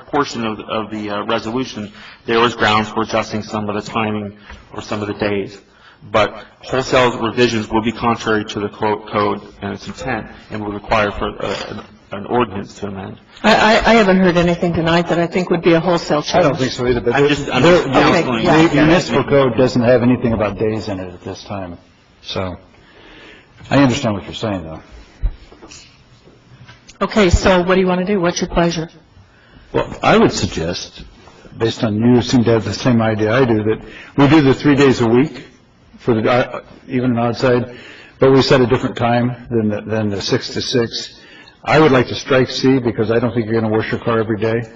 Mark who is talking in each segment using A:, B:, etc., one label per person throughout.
A: portion of, of the uh, resolution, there was grounds for adjusting some of the timing or some of the days. But wholesale revisions would be contrary to the co- code and its intent, and would require for uh, an ordinance to amend.
B: I, I, I haven't heard anything tonight that I think would be a wholesale change.
C: I don't think so either, but
A: I'm just- I'm
C: there-
A: just
C: there-
A: counseling.
C: the
A: Yeah.
C: municipal code doesn't have anything about days in it at this time, so I understand what you're saying, though.
B: Okay, so what do you want to do? What's your pleasure?
C: Well, I would suggest, based on you seem to have the same idea I do, that we do the three days a week for the, uh, even an odd side, but we set a different time than, the- than the six to six. I would like to strike C because I don't think you're going to wash your car every day.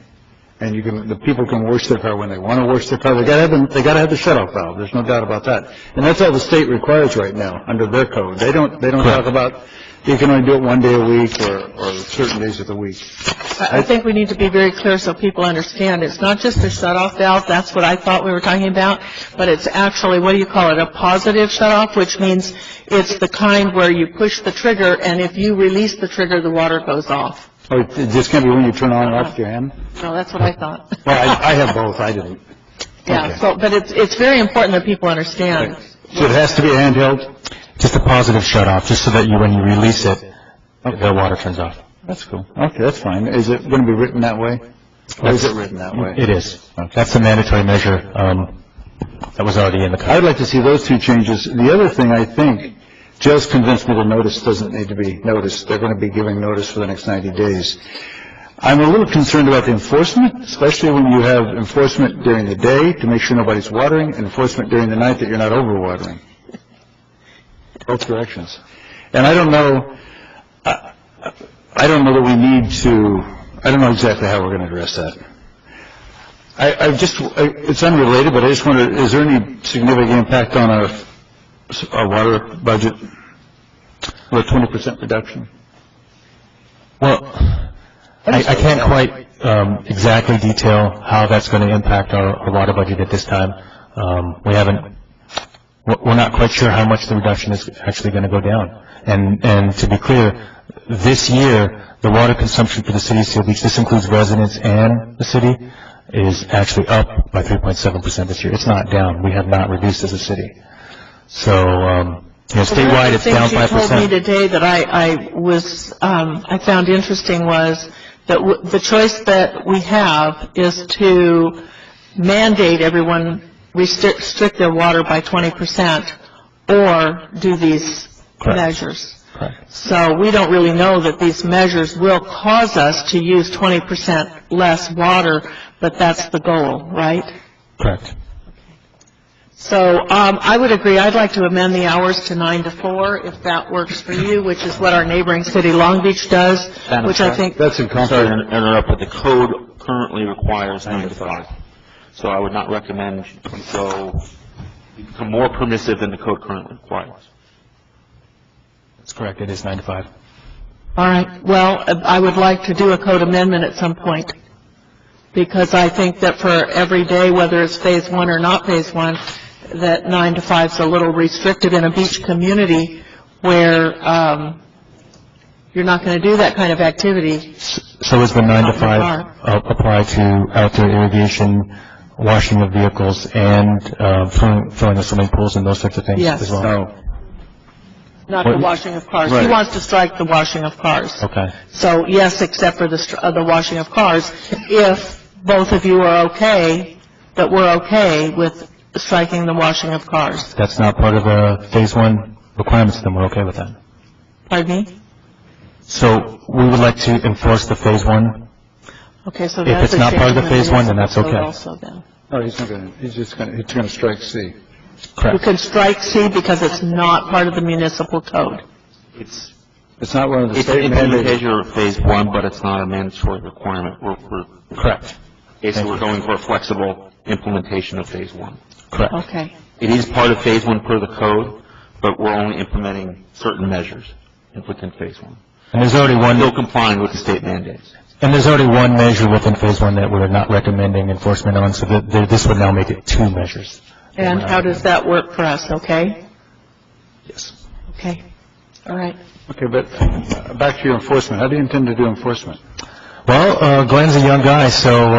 C: And you can, the people can wash their car when they want to wash their car. They gotta have, the- they gotta have the shut-off valve. There's no doubt about that. And that's all the state requires right now, under their code. They don't, they don't talk about, you can only do it one day a week or, or certain days of the week.
B: I, I think we need to be very clear so people understand. It's not just a shut-off valve, that's what I thought we were talking about, but it's actually, what do you call it, a positive shut-off, which means it's the kind where you push the trigger, and if you release the trigger, the water goes off.
C: Oh, it it just can't be when you turn on and off with your hand?
B: No, that's what I thought.
C: Well, I, I have both, I didn't.
B: Yeah,
C: Okay.
B: so, but it's, it's very important that people understand.
C: So it has to be handheld?
D: Just a positive shut-off, just so that you, when you release it, the water turns off.
C: That's cool. Okay, that's fine. Is it going to be written that way? Or is it written that way?
D: It is. That's a mandatory measure um, that was already in the
C: I'd
D: code.
C: like to see those two changes. The other thing, I think, Joe's convinced me the notice doesn't need to be noticed. They're going to be giving notice for the next 90 days. I'm a little concerned about the enforcement, especially when you have enforcement during the day to make sure nobody's watering, and enforcement during the night that you're not overwatering. Both directions. And I don't know, I I don't know that we need to, I don't know exactly how we're going to address that. I, I just, I- it's unrelated, but I just wonder, is there any significant impact on our, our water budget with a 20% reduction?
D: Well, I I can't quite um, exactly detail how that's going to impact our our water budget at this time. Um, We haven't, we're we're not quite sure how much the reduction is actually going to go down. And, and to be clear, this year, the water consumption for the city of Seal Beach, this includes residents and the city, is actually up by 3.7% this year. It's not down. We have not reduced as a city. So, um, you know, statewide, it's down 5%.
B: One of the things you told me today that I, I was, um, I found interesting was that w- the choice that we have is to mandate everyone restrict restrict their water by 20% or do these
D: Correct.
B: measures.
D: Correct.
B: So we don't really know that these measures will cause us to use 20% less water, but that's the goal, right?
D: Correct.
B: So um, I would agree, I'd like to amend the hours to 9 to 4, if that works for you, which is what our neighboring city, Long Beach, does,
A: Madam
B: which I
A: Chair?
B: think,
C: That's in
A: Sorry to
C: conflict.
A: interrupt, but the code currently requires nine to five. So I would not recommend you go, you become more permissive than the code currently requires.
D: That's correct. It is nine to five.
B: all right, well, uh, I would like to do a code amendment at some point, because I think that for every day, whether it's Phase 1 or not Phase 1, that 9 to 5 is a little restrictive in a beach community where um, you're not going to do that kind of activity.
D: So is the nine to five uh, apply to outdoor irrigation, washing of vehicles, and uh, filling filling the swimming pools and those sorts of things
B: Yes.
D: as well?
C: No.
B: Not the
D: What-
B: washing of cars. He
C: Right.
B: wants to strike the washing of cars.
D: Okay.
B: So yes, except for the, str- uh, the washing of cars, if both of you are okay, that we're okay with striking the washing of cars.
D: That's not part of the phase one requirements, then we're okay with that.
B: Pardon me?
D: So we would like to enforce the phase one.
B: Okay, so
D: If
B: that's.
D: it's
B: a
D: not part of the
B: change.
D: phase one, then that's
B: So
D: okay.
B: Also then.
C: No, he's not going to, he's just going to, he's going to strike C.
B: You
D: Correct.
B: can strike C because it's not part of the municipal code.
A: It's,
C: It's not one of the
A: it's
C: state
A: an
C: mandated.
A: implementation of phase one, but it's not a mandatory requirement. We're, we're,
D: Correct.
A: basically, we're going for a flexible implementation of phase one.
D: Correct.
B: Okay.
A: It is part of phase one per the code, but we're only implementing certain measures within phase one.
D: And there's already one,
A: Still complying with the state mandates.
D: and there's already one measure within phase one that we're not recommending enforcement on, so that that this would now make it two measures.
B: And how does that work for us, okay?
D: Yes.
B: Okay. All right.
C: Okay, but uh, back to your enforcement. How do you intend to do enforcement?
D: Well, uh, Glenn's a young guy, so